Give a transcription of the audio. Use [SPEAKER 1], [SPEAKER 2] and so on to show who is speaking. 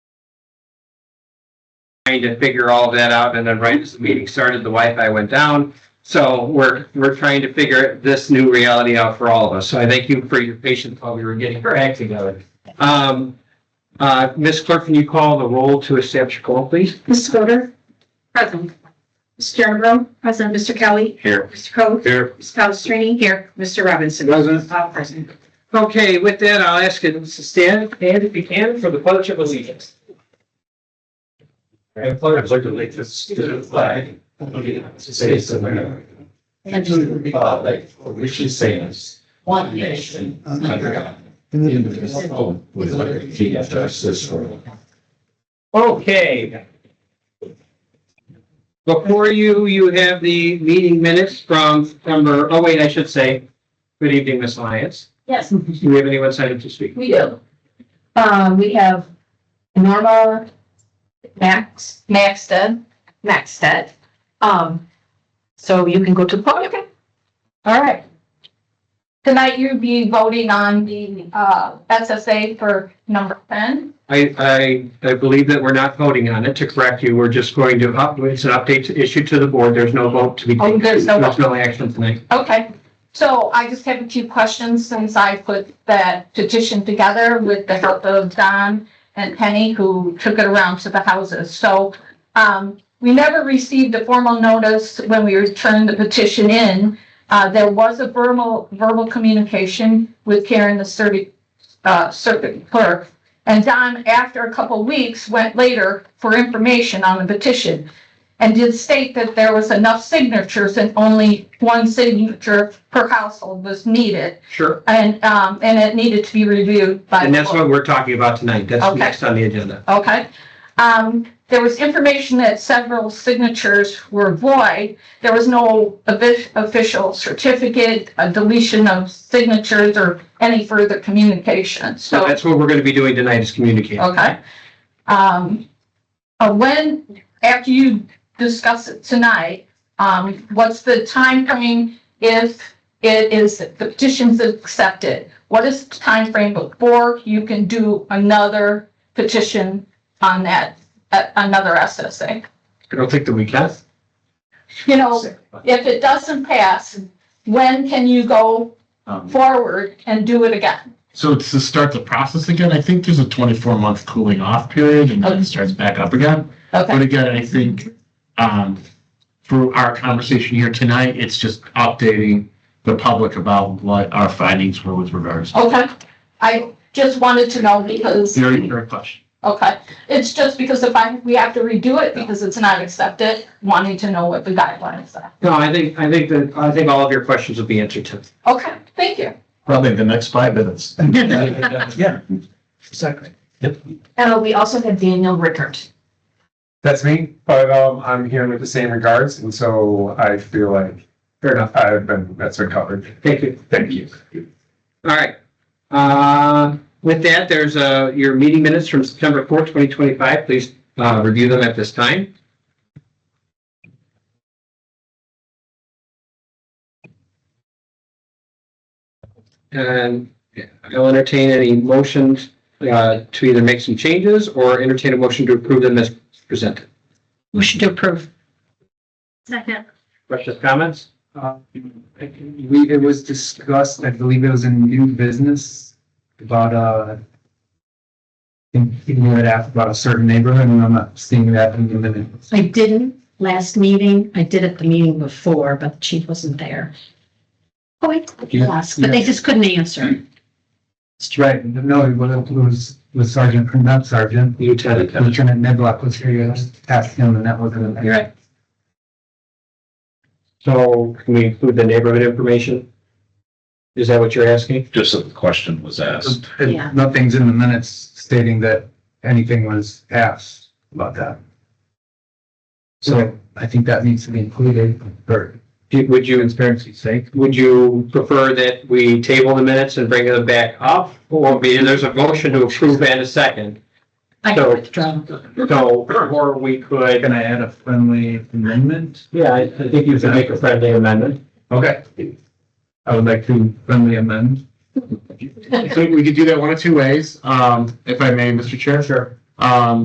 [SPEAKER 1] trying to figure all that out, and then right as the meeting started, the Wi-Fi went down. So we're, we're trying to figure this new reality out for all of us. So I thank you for your patience while we were getting our act together. Um, uh, Ms. Clerk, can you call the roll to establish a call, please?
[SPEAKER 2] Ms. Fodor,
[SPEAKER 3] Present.
[SPEAKER 2] Ms. Jernerbro, present, Mr. Kelly,
[SPEAKER 4] Here.
[SPEAKER 2] Mr. Coe,
[SPEAKER 4] Here.
[SPEAKER 2] Ms. Palastrellini, here, Mr. Robinson.
[SPEAKER 4] Present.
[SPEAKER 2] All present.
[SPEAKER 1] Okay, with that, I'll ask you to stand, and if you can, for the pledge of allegiance.
[SPEAKER 4] I pledge allegiance to the flag of the United States of America and to the republic for which it stands, one nation, under God, indivisible, with liberty and justice for all.
[SPEAKER 1] Okay. Before you, you have the meeting minutes from September, oh wait, I should say, good evening, Ms. Lyons.
[SPEAKER 3] Yes,
[SPEAKER 1] Do we have anyone signed up to speak?
[SPEAKER 3] we do. Um, we have Norma Max, Maxted, Maxted. Um, so you can go to the podium. All right. Tonight you'll be voting on the, uh, SSA for number ten.
[SPEAKER 1] I, I, I believe that we're not voting on it. To correct you, we're just going to, up- it's an update to issue to the board. There's no vote to be
[SPEAKER 3] Oh,
[SPEAKER 1] taken.
[SPEAKER 3] there's no
[SPEAKER 1] There's
[SPEAKER 3] vote.
[SPEAKER 1] no action tonight.
[SPEAKER 3] Okay, so I just have a few questions since I put that petition together with the help of Don and Penny, who took it around to the houses. So, um, we never received a formal notice when we returned the petition in. Uh, there was a verbal, verbal communication with Karen, the circuit, uh, circuit clerk. And Don, after a couple weeks, went later for information on the petition and did state that there was enough signatures and only one signature per household was needed.
[SPEAKER 1] Sure.
[SPEAKER 3] And, um, and it needed to be reviewed by.
[SPEAKER 1] And that's
[SPEAKER 3] the board.
[SPEAKER 1] what we're talking about tonight. That's
[SPEAKER 3] Okay.
[SPEAKER 1] next on the agenda.
[SPEAKER 3] Okay. Um, there was information that several signatures were void. There was no offi- official certificate, a deletion of signatures or any further communication,
[SPEAKER 1] So that's what we're going to be doing tonight is communicating.
[SPEAKER 3] Okay. Um, uh, when, after you discuss it tonight, um, what's the time frame if it is, the petition's accepted? What is the time frame before you can do another petition on that, uh, another SSA?
[SPEAKER 1] I don't think that we can.
[SPEAKER 3] You know, if it doesn't pass, when can you go
[SPEAKER 5] Um,
[SPEAKER 3] forward and do it again?
[SPEAKER 5] So to start the process again, I think there's a 24 month cooling off period and then it starts back up again. But
[SPEAKER 3] Okay,
[SPEAKER 5] again, I think um, through our conversation here tonight, it's just updating the public about what our findings were with regards. to
[SPEAKER 3] okay. I just wanted to know because.
[SPEAKER 5] Very, very question.
[SPEAKER 3] Okay, it's just because if I, we have to redo it because it's not accepted, wanting to know what the guidelines are.
[SPEAKER 1] No, I think, I think that, I think all of your questions will be answered tonight.
[SPEAKER 3] Okay, thank you.
[SPEAKER 5] Probably the next five minutes.
[SPEAKER 4] Yeah.
[SPEAKER 1] Second.
[SPEAKER 2] And we also have Daniel Rickert.
[SPEAKER 6] That's me, but um, I'm here with the same regards, and so I feel like
[SPEAKER 1] Fair enough.
[SPEAKER 6] I've been that's been covered.
[SPEAKER 1] Thank you.
[SPEAKER 6] Thank you.
[SPEAKER 1] All right. Uh, With that, there's uh, your meeting minutes from September 4th, 2025. Please uh, review them at this time. And I'll entertain any motions uh, to either make some changes or entertain a motion to approve them as presented.
[SPEAKER 2] Motion to approve. Second.
[SPEAKER 1] Questions, comments?
[SPEAKER 6] We, it was discussed, I believe it was in new business about uh in, in your app about a certain neighborhood, and I'm not seeing that in the minutes.
[SPEAKER 7] I didn't last meeting. I did at the meeting before, but the chief wasn't there. Oh, I did ask, but they just couldn't answer.
[SPEAKER 6] Right, no, it was- it was was Sergeant, not Sergeant,
[SPEAKER 1] Lieutenant.
[SPEAKER 6] Lieutenant Neblock was here, you asked him, and that wasn't. in there.
[SPEAKER 1] Right. So can we include the neighborhood information? Is that what you're asking?
[SPEAKER 8] just that the question was asked.
[SPEAKER 6] It-
[SPEAKER 7] Yeah.
[SPEAKER 6] Nothing's in the minutes stating that anything was asked about that. So I think that needs to be included, or
[SPEAKER 1] Do- Would you,
[SPEAKER 6] transparency's sake.
[SPEAKER 1] would you prefer that we table the minutes and bring them back up? Or be, there's a motion to approve and a second.
[SPEAKER 7] I
[SPEAKER 1] So-
[SPEAKER 7] can withdraw.
[SPEAKER 1] So, or we could,
[SPEAKER 6] Can I add a friendly amendment?
[SPEAKER 1] yeah, I I think you could make a friendly amendment.
[SPEAKER 6] Okay. I would like to friendly amend.
[SPEAKER 5] So we could do that one of two ways, um, if I may, Mr. Chair.
[SPEAKER 1] Sure.
[SPEAKER 5] Um,